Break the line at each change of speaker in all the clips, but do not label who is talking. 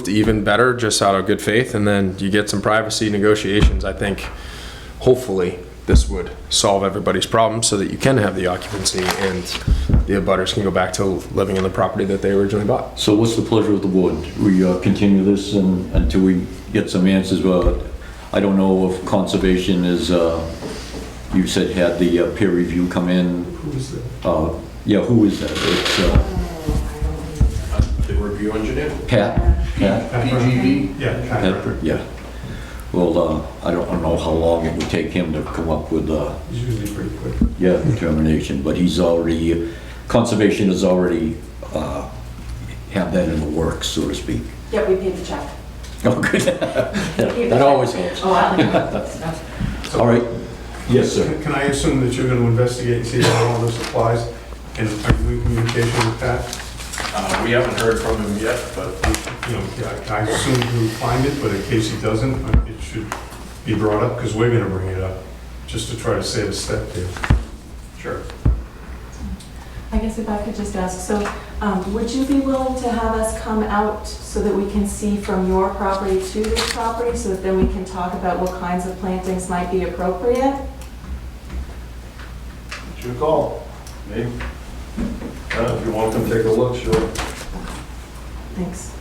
approved, even better, just out of good faith. And then you get some privacy negotiations. I think hopefully this would solve everybody's problem so that you can have the occupancy and the abutters can go back to living in the property that they originally bought.
So what's the pleasure of the board? We uh, continue this and- until we get some answers, Well, I don't know if conservation is, uh, you said had the uh, peer review come in. Who is that? Yeah, who is that? It's uh,
The review engineer?
Pat? Pat?
PGV?
Pat, Yeah. Well, uh, I don't know how long it would take him to come up with, uh,
It's usually pretty quick.
yeah, determination, but he's already, conservation has already uh, have that in the works, so to speak.
Yeah, we paid the check.
Oh, good. That always helps.
Oh, I don't know.
All right. Yes, sir.
Can I assume that you're going to investigate and see how all this applies? And are you in communication with Pat?
Uh, We haven't heard from him yet, but
You know, I- I assume he'll find it, but in case he doesn't, uh, it should be brought up because we're going to bring it up, just to try to save a step there.
sure.
I guess if I could just ask, so um, would you be willing to have us come out so that we can see from your property to this property, so that then we can talk about what kinds of plantings might be appropriate?
It's your call. Maybe. Uh, If you want to come take a look, sure.
Thanks.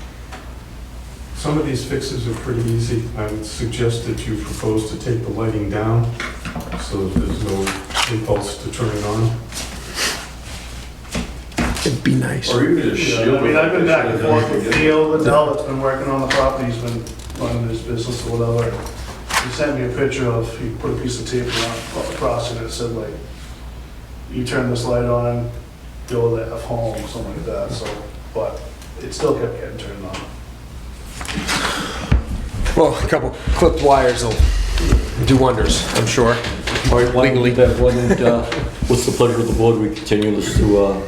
Some of these fixes are pretty easy. I would suggest that you propose to take the lighting down so that there's no impulse to turn it on.
It'd be nice.
Or you could just
Yeah,
shield.
I mean, I've been back and forth with
Field.
Theo Liddell, that's been working on the property, he's been running his business or whatever. He sent me a picture of, he put a piece of tape around, across it, and it said like, you turn this light on, go to F home, or something like that, so, but it still kept getting turned on.
Well, a couple clipped wires will do wonders, I'm sure.
All right, why don't we
Legally.
leave that one, and, uh, what's the pleasure of the board? We continue this to, uh,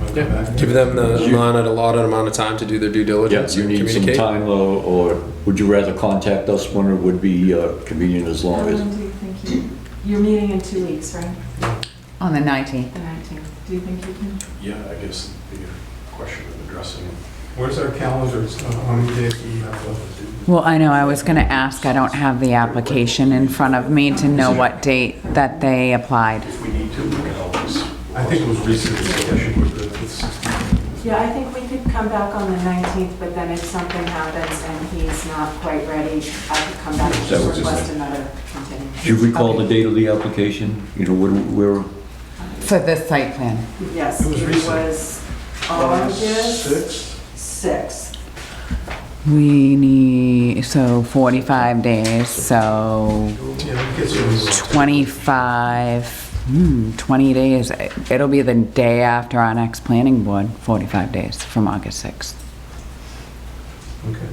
Wanna come back?
Give them the allotted, allotted amount of time to do their due
yeah,
diligence
you
and
need some
communicate.
time, uh, or would you rather contact us when it would be uh, convenient as
How
long as?
long do you think you, you're meeting in two weeks, right?
On the 19th.
The 19th. Do you think you can?
Yeah, I guess it'd be a question of addressing it.
Where's our calendar? It's not- How many days do we have left?
Well, I know, I was going to ask, I don't have the application in front of me to know what date that they applied.
If we need to, we can always.
I think it was recently, so I should put it- it's-
Yeah, I think we could come back on the 19th, but then if something happens and he's not quite ready, I could come back
That
and
was
just
just-
request another continuance.
Do you recall the date of the application? You know, when- where,
For this site plan.
Yes,
It was
it
recent.
was August
Six?
6th.
We need, so 45 days, so
Yeah, it gets you.
25, hmm, 20 days. It'll be the day after our next planning board, 45 days from August 6th.
Okay.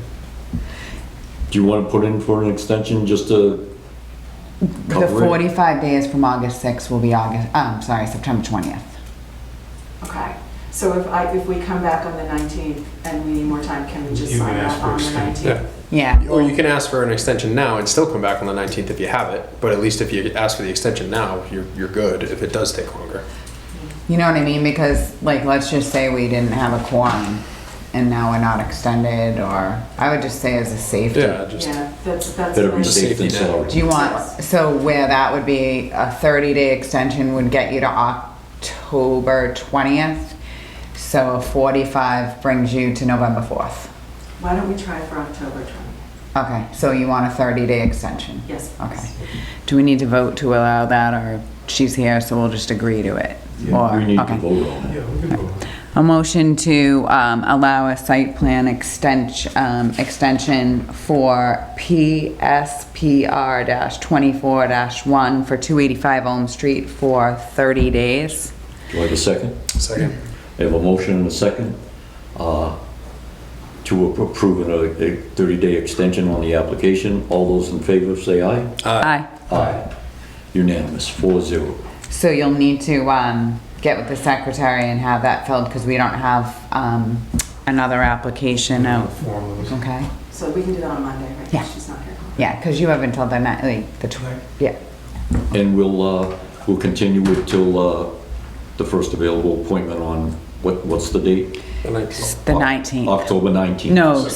do you want to put in for an extension just to?
The
Cover it.
45 days from August 6th will be August, um, sorry, September 20th.
Okay, so if I, if we come back on the 19th and we need more time, can we just
You can
sign
ask
up
for
on the
extension.
19th?
Yeah,
Or you can ask for an extension now and still come back on the 19th if you have it, but at least if you ask for the extension now, you're, you're good if it does take longer.
you know what I mean? Because, like, let's just say we didn't have a quorum and now we're not extended, or I would just say as a safety.
Yeah, just,
Yeah, that's, that's.
Better be
fine.
safe than
Safety net.
sorry.
Do you want, so where that would be a 30-day extension would get you to October 20th, so 45 brings you to November 4th.
Why don't we try for October 20th?
Okay, so you want a 30-day extension?
Yes, please.
Okay. Do we need to vote to allow that, or she's here, so we'll just agree to it?
Yeah,
Or-
We need to
okay.
vote on it.
Yeah, we can go.
A motion to um, allow a site plan extension, um, extension for PSPR twenty-four one for two eighty-five Elm Street for thirty days.
Do I have a second?
second.
I have a motion and a second uh, to approve a 30-day extension on the application. All those in favor, say aye.
Aye.
Aye. Unanimous, four zero.
So you'll need to, um, get with the secretary and have that filled, because we don't have, um, another application out,
Form of this.
okay?
So we can do that on Monday, right?
Yeah.
She's not here.
Yeah, because you have until the night, like, the tw- yeah.
And we'll, uh, we'll continue it till uh, the first available appointment on, what, what's the date?
The 19th.
The nineteenth.
October 19th.
No,